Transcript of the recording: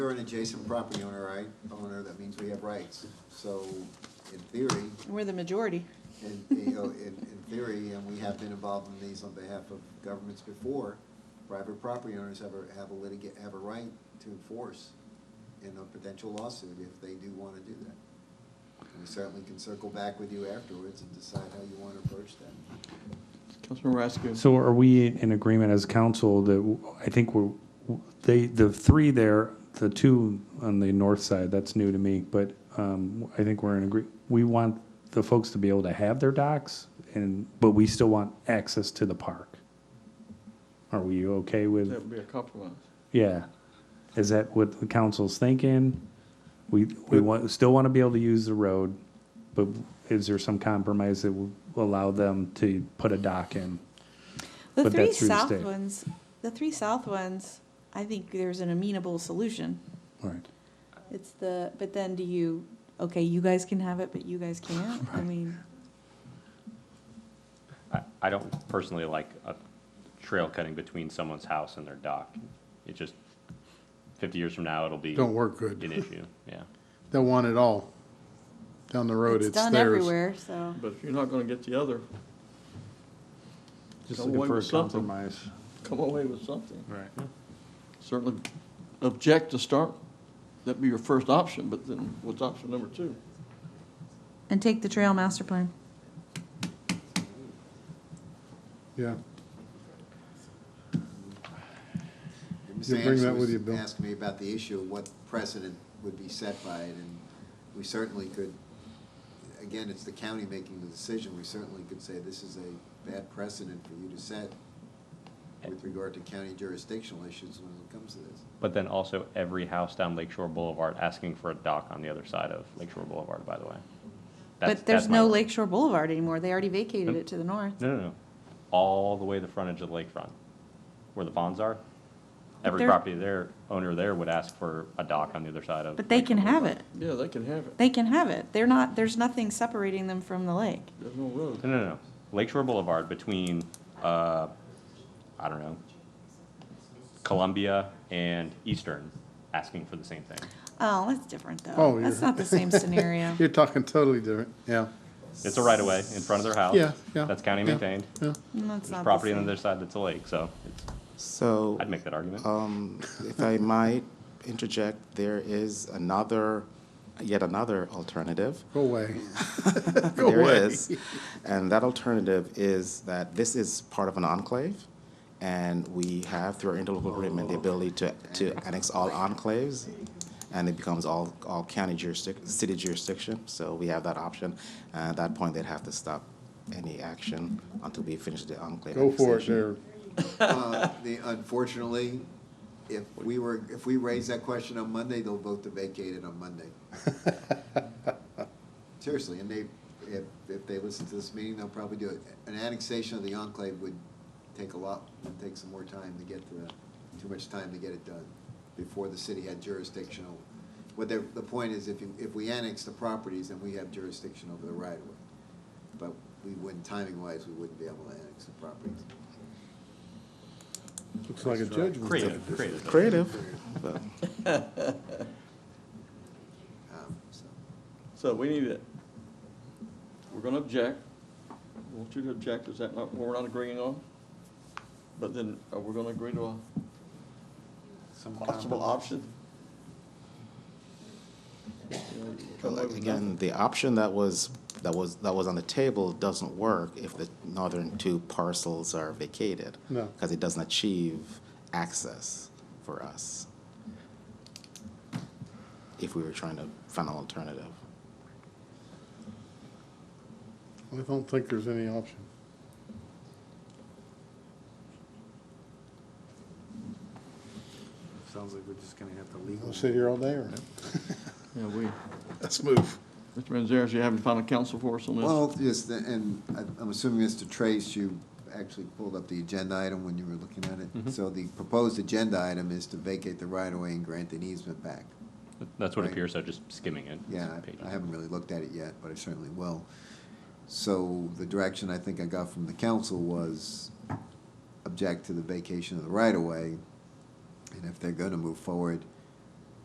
an adjacent property owner, right, owner, that means we have rights. So in theory, We're the majority. in, you know, in, in theory, and we have been involved in these on behalf of governments before, private property owners have a, have a litigate, have a right to enforce in a potential lawsuit if they do wanna do that. And we certainly can circle back with you afterwards and decide how you wanna approach that. Councilmember Raskin. So are we in agreement as council that, w- I think we're, w- they, the three there, the two on the north side, that's new to me, but um, I think we're in agree, we want the folks to be able to have their docks and, but we still want access to the park. Are we okay That with, would be a compromise. yeah, is that what the council's thinking? We, we want, still want to be able to use the road, but is there some compromise that will allow them to put a dock in? The But three that's through the south state. ones, the three south ones, I think there's an amenable solution. Right. It's the, but then do you, okay, you guys can have it, but you guys can't? I Right. mean, I, I don't personally like a trail cutting between someone's house and their dock. It just, fifty years from now, it'll be Don't work an good. issue, yeah. They'll want it all. Down the road, it's it's done theirs. everywhere, so. But if you're not gonna get the other, Just Come looking away for a with something. compromise. come away with something. Right. Certainly object to start, that'd be your first option, but then what's option number two? And take the trail master plan. Yeah, Mr. You'll bring Anderson that with was you, Bill. Asking me about the issue of what precedent would be set by it, and we certainly could, again, it's the county making the decision, we certainly could say this is a bad precedent for you to set with regard to county jurisdictional issues when it comes to this. But then also every house down Lakeshore Boulevard asking for a dock on the other side of Lakeshore Boulevard, by the way. That's- But there's that's my no worry. Lakeshore Boulevard anymore. They already vacated Nope. it to the north. No, no, no. All the way to the frontage of the lakefront, where the ponds are. Every they're- property there, owner there would ask for a dock on the other side of. But they can Lakeshore have Boulevard. it. Yeah, they can have it. They can have it. They're not, there's nothing separating them from the lake. There's no road. No, no, no. Lakeshore Boulevard between, uh, I don't know, Columbia and Eastern, asking for the same thing. Oh, that's different Oh, though. you're- That's not the same scenario. you're talking totally different, yeah. It's a right of way in front of their house. Yeah, yeah, That's county yeah. maintained. Yeah, That's There's not the property on same. the other side that's a lake, so it's, So, I'd make that argument. Uh, um, if I might interject, there is another, yet another alternative. go away. Go There away. is. And that alternative is that this is part of an enclave, and we have, through our interlocal agreement, the ability to, to annex all enclaves, and it becomes all, all county jurisdiction, city jurisdiction, so we have that option. And at that point, they'd have to stop any action until we finish the enclave. Go for it, annexation. there. Uh, the- Unfortunately, if we were, if we raise that question on Monday, they'll vote to vacate it on Monday. Seriously, and they, if, if they listen to this meeting, they'll probably do it. An annexation of the enclave would take a lot, would take some more time to get to, the- too much time to get it done before the city had jurisdictional. What the, the point is, if you, if we annex the properties, then we have jurisdiction over the right of way. But we wouldn't, timing wise, we wouldn't be able to annex the properties. Looks like a judgment. Creative, creative. Creative, but. Um, so. So we need it. We're gonna object. I want you to object. Is that not what we're not agreeing on? But then are we gonna agree to a possible option? You know, come away Well, with Again, the option that was, that was, that was on the table doesn't work if the northern two parcels are vacated. No. Because it doesn't achieve access for us. If we were trying to find an alternative. I don't think there's any option. Sounds like we're just gonna have to We'll legal. sit here all day or? nothing. Yeah, we, Let's move. Mr. Manzares, you haven't found a counsel for us on this? Well, yes, the- and I- I'm assuming, Mr. Trace, you actually pulled up the agenda item when you were looking at it. So the proposed agenda item is to vacate the right-of-way and grant an easement back. That's what Right. appears, so just skimming it. Yeah, Pages. I- I haven't really looked at it yet, but I certainly will. So the direction I think I got from the council was object to the vacation of the right-of-way. And if they're gonna move forward,